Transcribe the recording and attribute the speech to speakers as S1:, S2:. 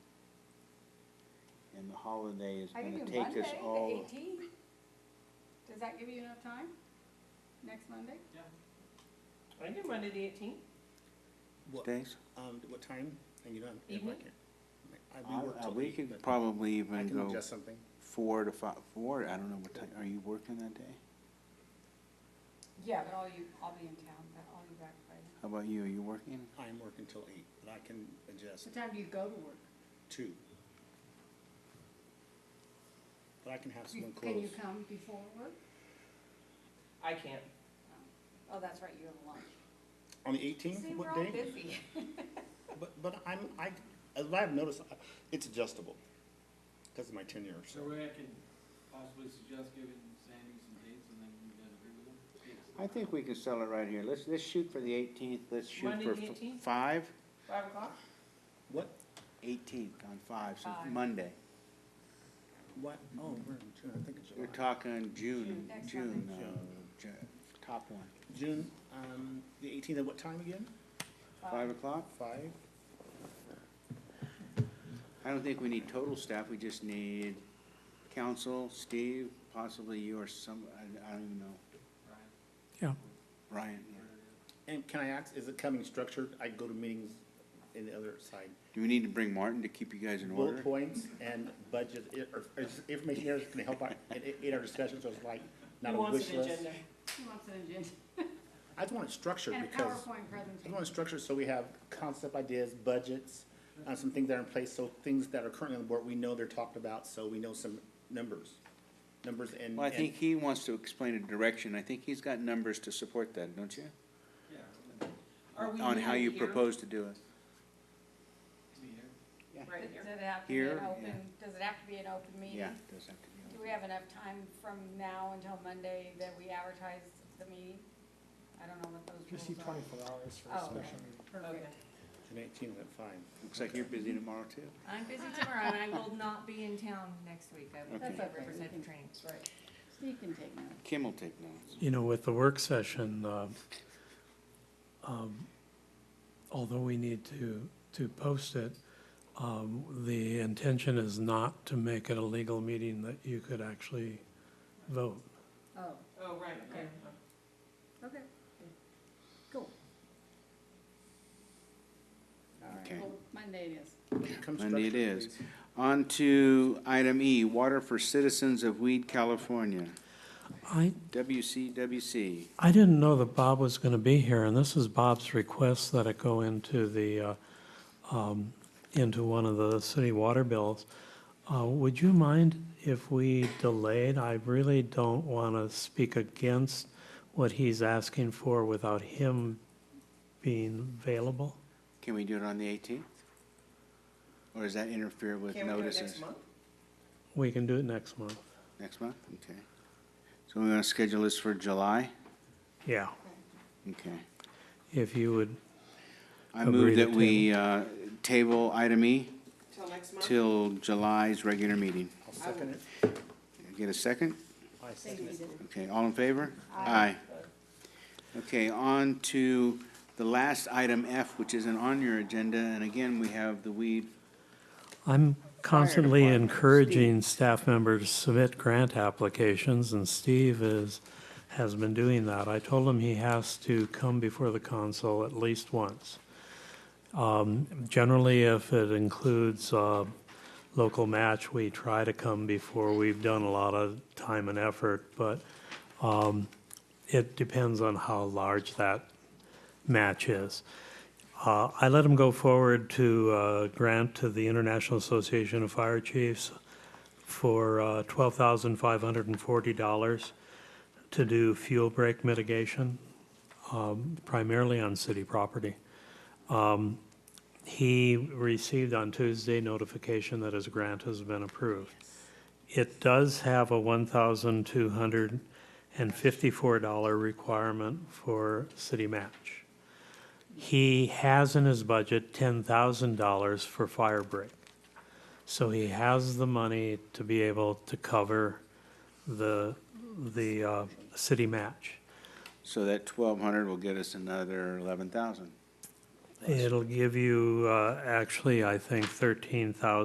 S1: and the holiday is
S2: I can
S1: gonna
S2: do
S1: take
S2: Monday,
S1: us all.
S2: the eighteenth. Does that give you enough time? Next Monday?
S3: I can do Monday the eighteenth.
S4: What,
S1: Thanks.
S4: um, what time? And you don't have.
S2: Mm-hmm.
S3: Evening?
S4: I, we
S1: Uh,
S4: work
S1: uh,
S4: till
S1: We
S4: eight,
S1: could
S4: but
S1: probably
S4: I
S1: even
S4: can
S1: go
S4: adjust something.
S1: four to five, four, I don't know what time, are you working that day?
S2: Yeah, but all you, I'll be in town, but I'll be back by then.
S1: How about you, are you working?
S4: I'm working till eight, but I can adjust
S2: What time do you go to work?
S4: two. But I can have someone
S2: Can
S4: close.
S2: you come before work?
S3: I can't.
S2: Oh, that's right, you have lunch.
S4: On the eighteenth,
S2: See, we're
S4: what
S2: all
S4: day?
S2: busy.
S4: But, but I'm, I, as I've noticed, I- it's adjustable because of my tenure,
S5: So
S4: so.
S5: way I can possibly suggest giving Sandy some dates and then you guys agree with them?
S1: I think we can sell it right here, let's, let's shoot for the eighteenth, let's shoot
S3: Monday,
S1: for
S3: the
S1: f-
S3: 18th?
S1: five,
S3: Five o'clock?
S4: What,
S1: eighteenth on five, so
S2: Five.
S1: Monday.
S4: what, oh, we're in June, I think it's
S1: We're
S4: July.
S1: talking June,
S2: June, next
S1: June,
S4: Monday.
S1: uh, Ju- top one,
S4: June, um, the eighteenth at what time again?
S1: five o'clock?
S4: Five?
S1: I don't think we need total staff, we just need council, Steve, possibly you or some, I, I don't even know,
S5: Right.
S1: Ryan.
S4: And can I ask, is it coming structured? I go to meetings in the other side.
S1: Do we need to bring Martin to keep you guys in order?
S4: Bullet points and budget, i- or, or is information there that's gonna help out in, in our discussion, so it's like not
S3: Who
S4: a
S3: wants
S4: wish
S3: an
S4: list.
S3: agenda?
S2: She wants an agenda
S4: I just want it structured
S2: and a
S4: because,
S2: PowerPoint
S4: I want
S2: presentation.
S4: it structured so we have concept ideas, budgets, uh, some things that are in place, so things that are currently on the board, we know they're talked about, so we know some numbers. Numbers and,
S1: Well, I
S4: and,
S1: think he wants to explain a direction, I think he's got numbers to support that, don't you?
S5: Yeah.
S3: Are we
S1: On how you
S3: here?
S1: propose to do it.
S5: Me here.
S3: Right
S2: Does
S3: here.
S2: it have to be an
S1: Here,
S2: open, does it have to be an open meeting?
S1: Yeah, it does have to be.
S2: Do we have enough time from now until Monday that we advertise the meeting? I don't know what those
S6: You
S2: rules
S6: see
S2: are.
S6: twenty-four hours for a
S2: Oh,
S6: special
S2: okay.
S6: meeting.
S3: Okay.
S2: Perfect.
S4: and eighteen at five.
S1: Looks like you're busy tomorrow too.
S7: I'm busy tomorrow and I will not be in town next week. I will
S1: Okay.
S7: be
S2: That's
S7: at
S2: okay.
S7: Riverside training.
S3: Right.
S2: Steve can take notes.
S1: Kim will take notes.
S8: You know, with the work session, uh, um, although we need to, to post it, um, the intention is not to make it a legal meeting that you could actually vote.
S2: Oh,
S3: Oh, right, okay.
S2: okay.
S1: Okay.
S2: Well, Monday it is.
S4: Come
S1: Monday it
S4: structured,
S1: is.
S4: please.
S1: On to item E, Water for Citizens of Weed, California,
S8: I,
S1: WCWC.
S8: I didn't know that Bob was going to be here, and this is Bob's request that it go into the, uh, um, into one of the city water bills. Uh, Would you mind if we delayed? I really don't want to speak against what he's asking for without him being available.
S1: Can we do it on the eighteenth? Or does that interfere with
S3: Can we do it
S1: notices?
S3: next month?
S8: We can do it next month.
S1: Next month, okay. So we're gonna schedule this for July?
S8: Yeah,
S1: Okay.
S8: if you would,
S1: I
S8: Agree
S1: move
S8: to
S1: that we, uh, table item E
S3: Till next month?
S1: till July's regular meeting.
S4: I'll second it.
S1: Get a second?
S4: I second it.
S1: Okay, all in favor? Aye. Okay, on to the last item F, which isn't on your agenda, and again, we have the weed.
S8: I'm constantly
S1: department,
S8: encouraging staff members to submit grant applications, and Steve is, has been doing that. I told him he has to come before the council at least once. Um, Generally, if it includes uh, local match, we try to come before. We've done a lot of time and effort, but um, it depends on how large that match is. Uh, I let him go forward to uh, grant to the International Association of Fire Chiefs for uh, $12,540 to do fuel break mitigation, um, primarily on city property. Um, He received on Tuesday notification that his grant has been approved. It does have a $1,254 requirement for city match. He has in his budget ten thousand dollars for fire break. So he has the money to be able to cover the, the, uh, city match.
S1: So that twelve hundred will get us another eleven thousand.
S8: It'll give you, uh, actually, I think thirteen thousand.